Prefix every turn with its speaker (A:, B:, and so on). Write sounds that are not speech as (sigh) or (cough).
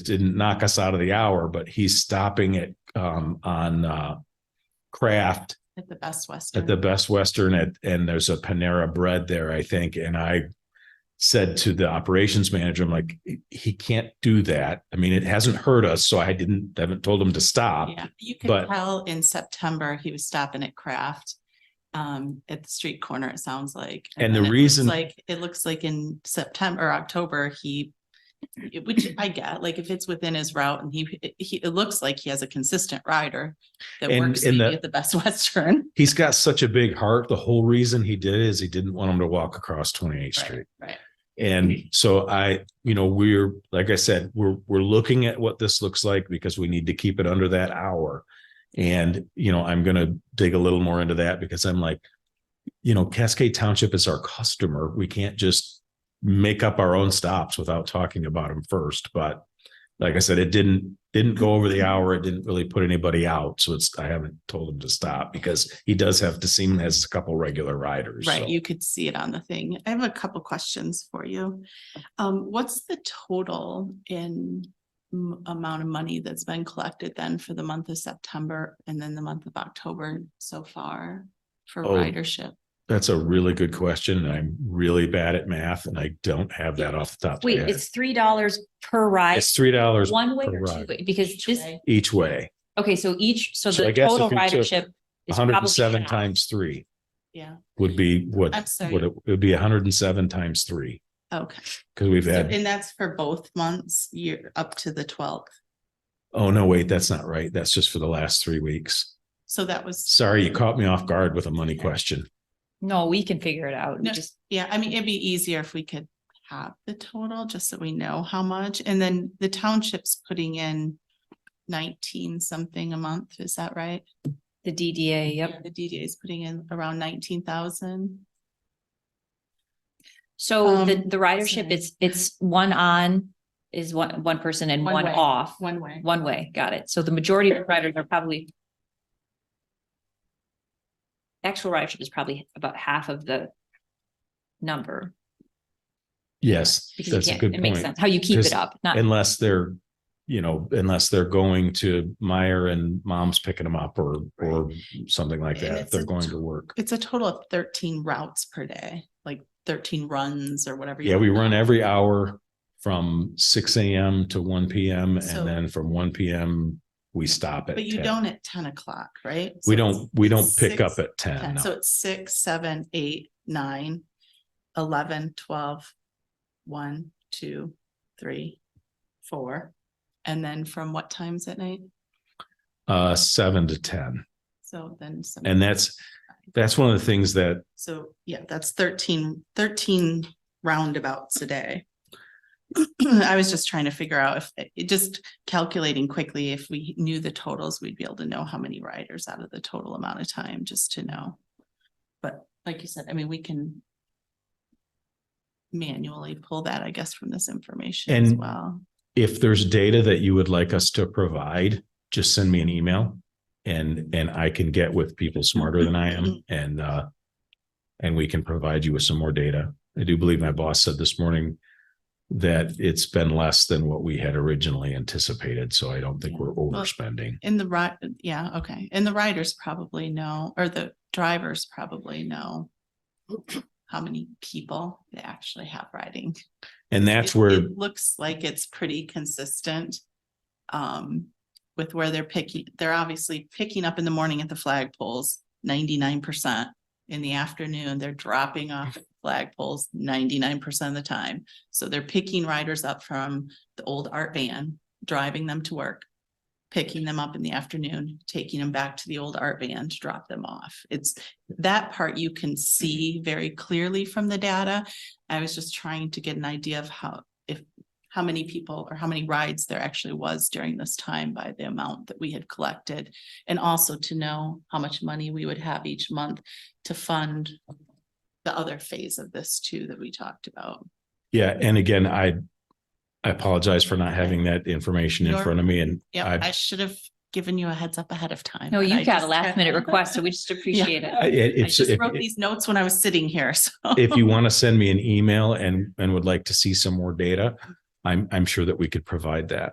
A: it didn't knock us out of the hour, but he's stopping at um on uh Craft
B: At the Best Western.
A: at the Best Western at, and there's a Panera Bread there, I think. And I said to the operations manager, I'm like, he can't do that. I mean, it hasn't hurt us, so I didn't haven't told him to stop.
B: Yeah, you could
A: but-
B: tell in September, he was stopping at Kraft. Um, at the street corner, it sounds like.
A: And the
B: then it looks
A: reason-
B: Like, it looks like in September, or October, he. it- Which I get, like if it's within his route and he, he, it looks like he has a consistent rider. That
A: And-
B: works
A: and
B: maybe
A: the-
B: at the Best Western.
A: He's got such a big heart. The whole reason he did it is he didn't want him to walk across 28th Street.
B: Right.
A: And so I, you know, we're, like I said, we're, we're looking at what this looks like because we need to keep it under that hour. And, you know, I'm going to dig a little more into that because I'm like, you know, Cascade Township is our customer. We can't just make up our own stops without talking about them first. But like I said, it didn't, didn't go over the hour. It didn't really put anybody out. So it's, I haven't told him to stop because he does have, the seam has a couple regular riders.
B: Right,
A: So-
B: you could see it on the thing. I have a couple questions for you. Um, what's the total in m- amount of money that's been collected then for the month of September and then the month of October so far for
A: Oh,
B: ridership?
A: That's a really good question. and I'm really bad at math and I don't have that off the top. of my
C: Wait,
A: head.
C: it's three dollars per ride,
A: It's three dollars
C: one way
A: per
C: or two
A: ride.
C: way, because this,
A: each way,
C: okay, so each, so
A: So I
C: the
A: guess
C: total
A: if you took
C: ridership. is
A: hundred
C: probably
A: and seven
C: half.
A: times three
B: Yeah,
A: would be what,
B: I'm sorry.
A: what it it would be hundred and seven times three.
B: okay.
A: Cause we've
B: So-
A: had,
B: And that's for both months, year up to the twelfth.
A: oh no, wait, that's not right. That's just for the last three weeks.
B: So that was,
A: Sorry, you caught me off guard with a money question.
C: No, we can figure it out. We
B: No.
C: just-
B: yeah, I mean, it'd be easier if we could have the total, just so we know how much. And then the township's putting in nineteen something a month, is that right?
C: The DDA, yep.
B: The DDA is putting in around nineteen thousand.
C: So the,
B: Um,
C: the ridership,
B: sorry.
C: it's, it's one on is one, one person and
B: One
C: one
B: way.
C: off,
B: One way.
C: one way, got it. So the majority of the riders are probably actual ridership is probably about half of the number.
A: Yes,
C: because you
A: that's a
C: can't-
A: good
C: It makes
A: point.
C: sense, how you keep
A: Because-
C: it up, not.
A: Unless they're, you know, unless they're going to Meyer and mom's picking them up or, or something like
B: And
A: that. If
B: it's
A: they're
B: a
A: going to work.
B: It's a total of thirteen routes per day, like thirteen runs or whatever. you
A: Yeah, we
B: wanna
A: run
B: call it.
A: every hour from six AM to one PM
B: So-
A: and then from one PM, we stop at
B: But you
A: 10.
B: don't at ten o'clock, right? So
A: We
B: it's
A: don't, we don't pick up
B: six-
A: at ten.
B: 10.
A: no.
B: So it's six, seven, eight, nine, eleven, twelve, one, two, three, four. And then from what times at night?
A: Uh, seven to ten.
B: So then. some-
A: And that's, that's one of the things that,
B: So, yeah, that's 13 13 roundabouts a day. (clears throat) I was just trying to figure out if, it- just calculating quickly, if we knew the totals, we'd be able to know how many riders out of the total amount of time, just to know. But like you said, I mean, we can manually pull that, I guess, from this information as
A: And-
B: well.
A: if there's data that you would like us to provide, just send me an email. And, and I can get with people smarter than I am
B: Mm-hmm.
A: and, uh, and we can provide you with some more data. I do believe my boss said this morning that it's been less than what we had originally anticipated. So I don't think we're overspending.
B: In the right, yeah, okay. And the riders probably know, or the drivers probably know how many people they actually have riding.
A: And that's
B: It-
A: where,
B: it Looks like it's pretty consistent. Um, with where they're picking, they're obviously picking up in the morning at the flagpoles, ninety-nine percent. In the afternoon, they're dropping off at flagpoles ninety-nine percent of the time. So they're picking riders up from the old art van, driving them to work. Picking them up in the afternoon, taking them back to the old art van to drop them off. It's that part you can see very clearly from the data. I was just trying to get an idea of how, if, how many people or how many rides there actually was during this time by the amount that we had collected. And also to know how much money we would have each month to fund the other phase of this too that we talked about.
A: yeah, and again, I, I apologize for not having that information in
B: You're-
A: front of me and
B: Yeah,
A: I,
B: I should have given you a heads up ahead of time.
C: No,
B: but I
C: you got a
B: just-
C: last minute
B: (laughs)
C: request, so we just appreciate it.
A: I- it-
B: I
A: it's,
B: just
A: if,
B: wrote these notes when I was sitting here, (laughs) so.
A: if you want to send me an email and, and would like to see some more data, I'm, I'm sure that we could provide that.